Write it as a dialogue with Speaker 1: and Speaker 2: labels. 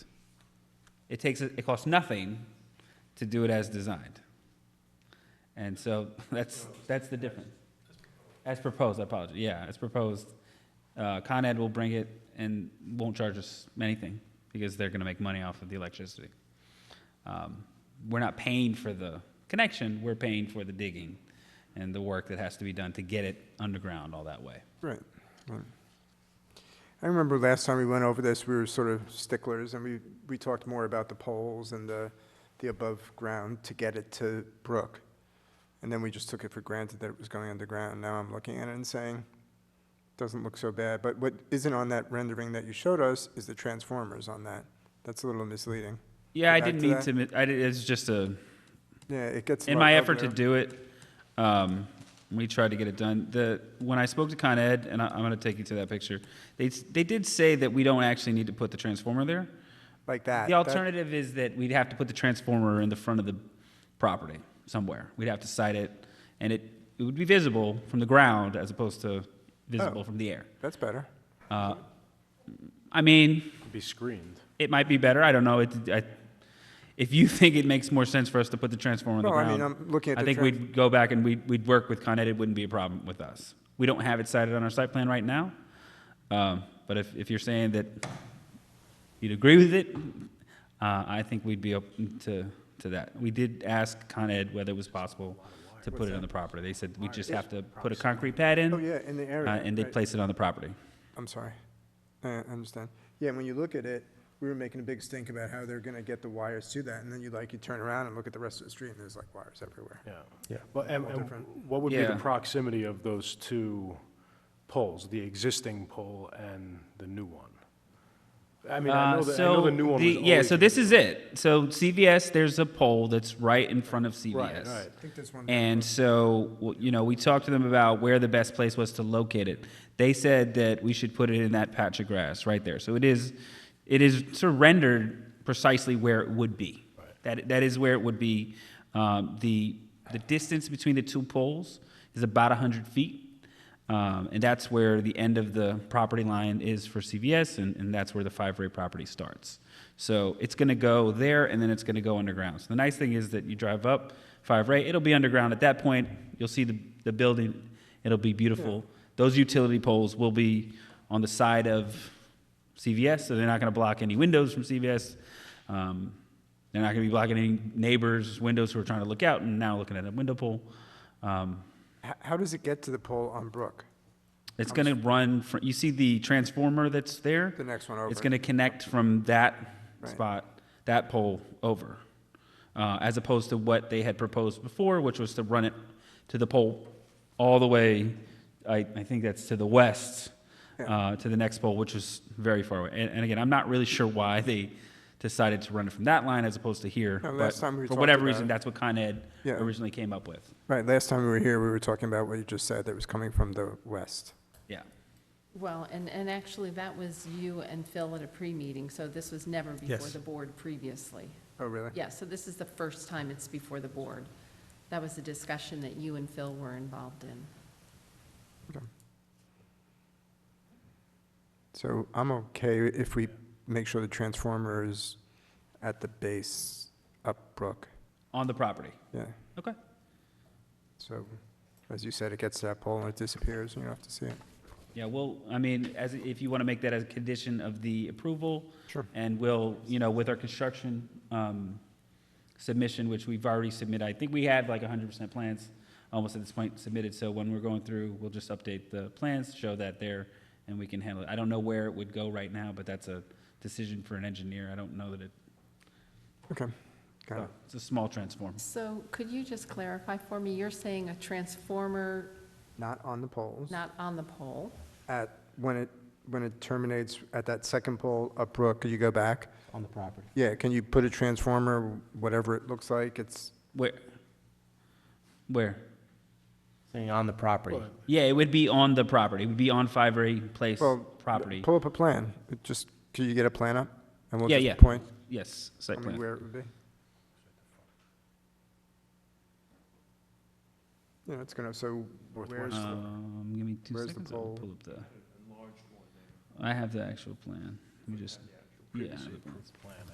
Speaker 1: It takes it costs nothing to do it as designed. And so that's that's the difference. As proposed, I apologize. Yeah, as proposed, uh, Con Ed will bring it and won't charge us anything because they're going to make money off of the electricity. Um, we're not paying for the connection; we're paying for the digging and the work that has to be done to get it underground all that way.
Speaker 2: Right. right. I remember last time we went over this, we were sort of sticklers, and we, we talked more about the poles and the, the above-ground to get it to Brook. And then we just took it for granted that it was going underground. Now I'm looking at it and saying, doesn't look so bad. But what isn't on that rendering that you showed us is the transformers on that. That's a little misleading.
Speaker 1: Yeah,
Speaker 2: Go
Speaker 1: I
Speaker 2: back
Speaker 1: didn't
Speaker 2: to
Speaker 1: mean
Speaker 2: that?
Speaker 1: to. mi- I did, it's just a.
Speaker 2: Yeah, it gets.
Speaker 1: in
Speaker 2: lo-
Speaker 1: my
Speaker 2: up
Speaker 1: effort to
Speaker 2: there.
Speaker 1: do it, um, we tried to get it done. The, when I spoke to Con Ed, and I, I'm going to take you to that picture, they, s- they did say that we don't actually need to put the transformer there.
Speaker 2: Like that.
Speaker 1: The
Speaker 2: that-
Speaker 1: alternative is that we'd have to put the transformer in the front of the property somewhere. We'd have to site it, and it, it would be visible from the ground as opposed to visible
Speaker 2: Oh.
Speaker 1: from the air.
Speaker 2: That's better.
Speaker 1: Uh, I mean,
Speaker 3: be screened.
Speaker 1: it might be better. I don't know. It, I, if you think it makes more sense for us to put the transformer on the
Speaker 2: No, I
Speaker 1: ground,
Speaker 2: mean, I'm looking at
Speaker 1: I
Speaker 2: the
Speaker 1: think
Speaker 2: trans-
Speaker 1: we'd go back and we'd, we'd work with Con Ed. It wouldn't be a problem with us. We don't have it cited on our site plan right now. Um, but if, if you're saying that you'd agree with it, uh, I think we'd be open to, to that. We did ask Con Ed whether it was possible to put it on the property. They said we just have to put a concrete pad in
Speaker 2: Oh, yeah, in the
Speaker 1: uh,
Speaker 2: area.
Speaker 1: and they
Speaker 2: right.
Speaker 1: place it on the property.
Speaker 2: I'm sorry. I I understand. Yeah, and when you look at it, we were making a big stink about how they're gonna get the wires to that, and then you like, you turn around and look at the rest of the street, and there's like wires everywhere.
Speaker 3: Yeah. Yeah. But, and, and
Speaker 2: different.
Speaker 3: what would be the
Speaker 1: Yeah.
Speaker 3: proximity of those two poles, the existing pole and the new one? I mean, I know
Speaker 1: Uh,
Speaker 3: the, I know the
Speaker 1: so
Speaker 3: new one was
Speaker 1: the-
Speaker 3: always.
Speaker 1: Yeah, so this is it. So CVS, there's a pole that's right in front of
Speaker 3: Right,
Speaker 1: CVS.
Speaker 3: right.
Speaker 2: I think that's one.
Speaker 1: And so, w- you know, we talked to them about where the best place was to locate it. They said that we should put it in that patch of grass right there. So it is, it is sort of rendered precisely where it would be. That, that is where it would be. Um, the, the distance between the two poles is about 100 feet. Um, and that's where the end of the property line is for CVS, and, and that's where the Five Ray property starts. So it's going to go there, and then it's going to go underground. So the nice thing is that you drive up Five Ray, it'll be underground. At that point, you'll see the, the building, it'll be beautiful. Those utility poles will be on the side of CVS, so they're not going to block any windows from CVS. Um, they're not going to be blocking any neighbors' windows who are trying to look out and now looking at a window pole. Um,
Speaker 2: How, how does it get to the pole on Brook?
Speaker 1: it's going to run, fr- you see the transformer that's there?
Speaker 2: The next one over.
Speaker 1: It's going to connect from that
Speaker 2: Right.
Speaker 1: spot, that pole over, uh, as opposed to what they had proposed before, which was to run it to the pole all the way, I, I think that's to the west, uh, to the next pole, which was very far away. And, and again, I'm not really sure why they decided to run it from that line as opposed to here.
Speaker 2: No, last
Speaker 1: but
Speaker 2: time we
Speaker 1: For
Speaker 2: talked
Speaker 1: whatever
Speaker 2: about
Speaker 1: reason,
Speaker 2: it.
Speaker 1: that's what Con Ed
Speaker 2: Yeah.
Speaker 1: originally came up with.
Speaker 2: Right, last time we were here, we were talking about what you just said, that was coming from the west.
Speaker 1: Yeah.
Speaker 4: Well, and, and actually, that was you and Phil at a pre-meeting, so this was never before
Speaker 2: Yes.
Speaker 4: the board previously.
Speaker 2: Oh, really?
Speaker 4: Yeah, so this is the first time it's before the board. That was a discussion that you and Phil were involved in.
Speaker 2: So I'm okay if we make sure the transformer is at the base up Brook,
Speaker 1: On the property.
Speaker 2: yeah.
Speaker 1: Okay.
Speaker 2: So, as you said, it gets to that pole and it disappears, and you don't have to see it.
Speaker 1: Yeah, well, I mean, as, if you want to make that as a condition of the approval.
Speaker 2: Sure.
Speaker 1: And we'll, you know, with our construction um, submission, which we've already submitted, I think we had like 100% plans almost at this point submitted. So when we're going through, we'll just update the plans, show that there, and we can handle it. I don't know where it would go right now, but that's a decision for an engineer. I don't know that it,
Speaker 2: Okay, got it.
Speaker 1: it's a small transformer.
Speaker 4: So could you just clarify for me, you're saying a transformer
Speaker 2: Not on the poles.
Speaker 4: not on the pole?
Speaker 2: at, when it, when it terminates at that second pole up Brook, you go back?
Speaker 5: on the property.
Speaker 2: Yeah, can you put a transformer, whatever it looks like, it's,
Speaker 1: Where? Where?
Speaker 5: Saying on the property.
Speaker 1: Yeah, it would be on the property. It would be on Five Ray Place
Speaker 2: well.
Speaker 1: property.
Speaker 2: Pull up a plan, It just, can you get a plan up? And we'll
Speaker 1: Yeah,
Speaker 2: just
Speaker 1: yeah.
Speaker 2: point,
Speaker 1: Yes,
Speaker 2: I
Speaker 1: site
Speaker 2: mean,
Speaker 1: plan.
Speaker 2: where it would be. Yeah, it's gonna, so where's, the-
Speaker 1: Um, give me two
Speaker 2: Where's the
Speaker 1: seconds. I'll
Speaker 2: pole?
Speaker 1: pull up the. I have the actual plan. Let me just. Yeah. I have the plans.